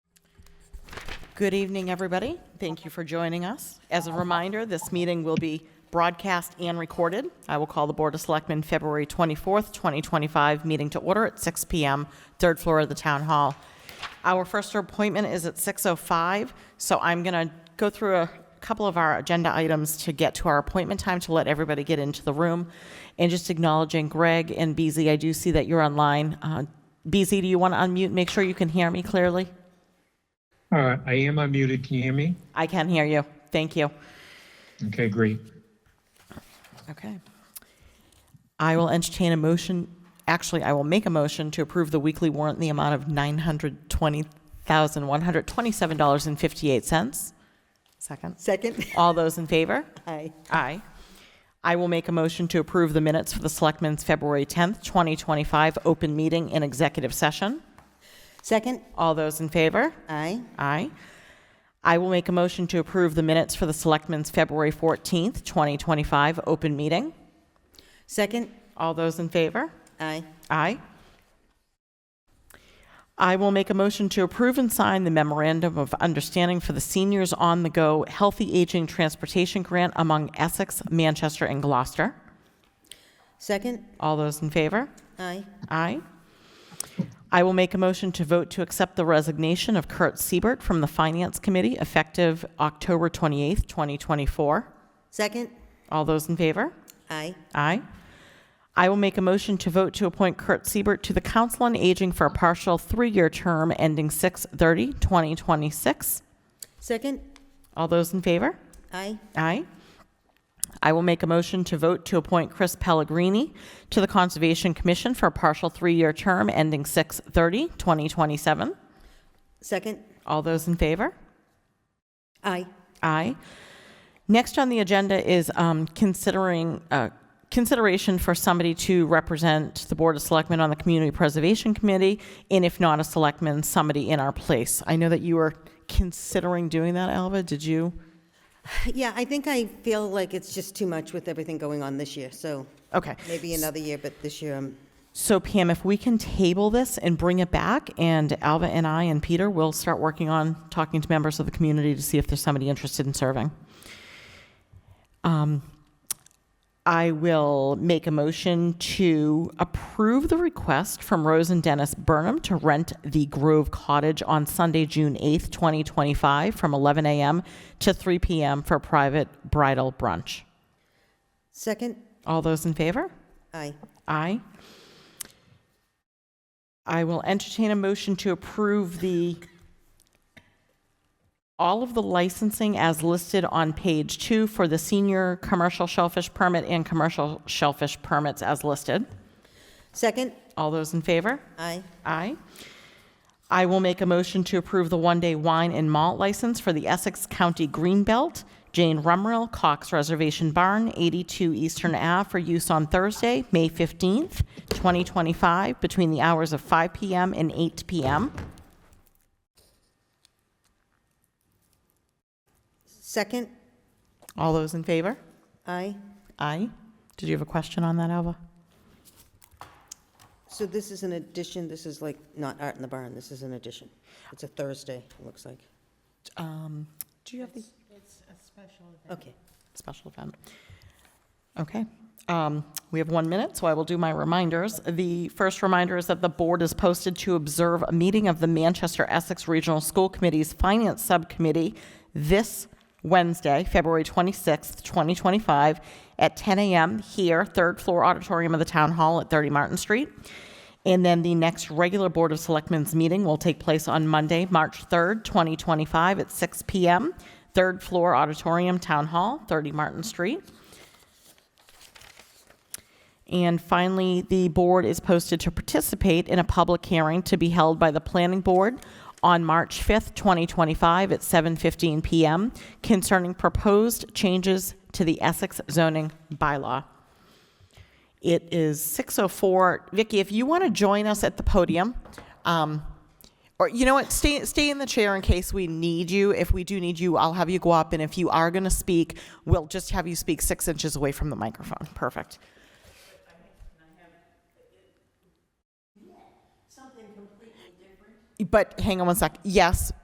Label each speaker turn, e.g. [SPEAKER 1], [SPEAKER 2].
[SPEAKER 1] Good evening, everybody. Thank you for joining us. As a reminder, this meeting will be broadcast and recorded. I will call the Board of Selectmen February 24th, 2025, meeting to order at 6 PM, third floor of the Town Hall. Our first appointment is at 6:05, so I'm going to go through a couple of our agenda items to get to our appointment time to let everybody get into the room. And just acknowledging Greg and BZ, I do see that you're online. Uh, BZ, do you want to unmute? Make sure you can hear me clearly.
[SPEAKER 2] Uh, I am unmuted. Can you hear me?
[SPEAKER 1] I can hear you. Thank you.
[SPEAKER 2] Okay, great.
[SPEAKER 1] Okay. I will entertain a motion, actually, I will make a motion to approve the weekly warrant in the amount of $920,127.58. Second.
[SPEAKER 3] Second?
[SPEAKER 1] All those in favor?
[SPEAKER 3] Aye.
[SPEAKER 1] Aye. I will make a motion to approve the minutes for the Selectmen's February 10th, 2025, open meeting and executive session.
[SPEAKER 3] Second?
[SPEAKER 1] All those in favor?
[SPEAKER 3] Aye.
[SPEAKER 1] Aye. I will make a motion to approve the minutes for the Selectmen's February 14th, 2025, open meeting.
[SPEAKER 3] Second?
[SPEAKER 1] All those in favor?
[SPEAKER 3] Aye.
[SPEAKER 1] Aye. I will make a motion to approve and sign the memorandum of understanding for the Seniors on the Go Healthy Aging Transportation Grant among Essex, Manchester, and Gloucester.
[SPEAKER 3] Second?
[SPEAKER 1] All those in favor?
[SPEAKER 3] Aye.
[SPEAKER 1] Aye. I will make a motion to vote to accept the resignation of Kurt Siebert from the Finance Committee effective October 28th, 2024.
[SPEAKER 3] Second?
[SPEAKER 1] All those in favor?
[SPEAKER 3] Aye.
[SPEAKER 1] Aye. I will make a motion to vote to appoint Kurt Siebert to the Council on Aging for a partial three-year term ending 6/30/2026.
[SPEAKER 3] Second?
[SPEAKER 1] All those in favor?
[SPEAKER 3] Aye.
[SPEAKER 1] Aye. I will make a motion to vote to appoint Chris Pellegrini to the Conservation Commission for a partial three-year term ending 6/30/2027.
[SPEAKER 3] Second?
[SPEAKER 1] All those in favor?
[SPEAKER 3] Aye.
[SPEAKER 1] Aye. Next on the agenda is um, considering, uh, consideration for somebody to represent the Board of Selectmen on the Community Preservation Committee, and if not a selectman, somebody in our place. I know that you were considering doing that, Alva. Did you?
[SPEAKER 3] Yeah, I think I feel like it's just too much with everything going on this year, so
[SPEAKER 1] Okay.
[SPEAKER 3] maybe another year, but this year, um,
[SPEAKER 1] So Pam, if we can table this and bring it back, and Alva and I and Peter will start working on talking to members of the community to see if there's somebody interested in serving. Um, I will make a motion to approve the request from Rose and Dennis Burnham to rent the Grove Cottage on Sunday, June 8th, 2025, from 11 a.m. to 3 p.m. for private bridal brunch.
[SPEAKER 3] second?
[SPEAKER 1] All those in favor?
[SPEAKER 3] Aye.
[SPEAKER 1] Aye. I will entertain a motion to approve the, all of the licensing as listed on page two for the senior commercial shellfish permit and commercial shellfish permits as listed.
[SPEAKER 3] Second?
[SPEAKER 1] All those in favor?
[SPEAKER 3] Aye.
[SPEAKER 1] Aye. I will make a motion to approve the one-day wine and malt license for the Essex County Greenbelt, Jane Rumrell Cox Reservation Barn, 82 Eastern Ave, for use on Thursday, May 15th, 2025, between the hours of 5 PM and 8 PM.
[SPEAKER 3] Second?
[SPEAKER 1] All those in favor?
[SPEAKER 3] Aye.
[SPEAKER 1] Aye. Did you have a question on that, Alva?
[SPEAKER 3] So this is an addition, this is like not Art in the Barn, this is an addition. It's a Thursday, it looks like.
[SPEAKER 1] Um, Do you have the?
[SPEAKER 3] Okay.
[SPEAKER 1] Special event. Okay. Um, We have one minute, so I will do my reminders. The first reminder is that the board is posted to observe a meeting of the Manchester Essex Regional School Committee's Finance Subcommittee this Wednesday, February 26th, 2025, at 10 a.m. here, third floor auditorium of the Town Hall at 30 Martin Street. And then the next regular Board of Selectmen's meeting will take place on Monday, March 3rd, 2025, at 6 p.m., third floor auditorium, Town Hall, 30 Martin Street. And finally, the board is posted to participate in a public hearing to be held by the planning board on March 5th, 2025 at 7:15 PM concerning proposed changes to the Essex zoning bylaw. It is 6:04. Vicky, if you want to join us at the podium, um, or you know what, stay stay in the chair in case we need you. If we do need you, I'll have you go up, and if you are going to speak, we'll just have you speak six inches away from the microphone. Perfect. But hang on one sec. Yes,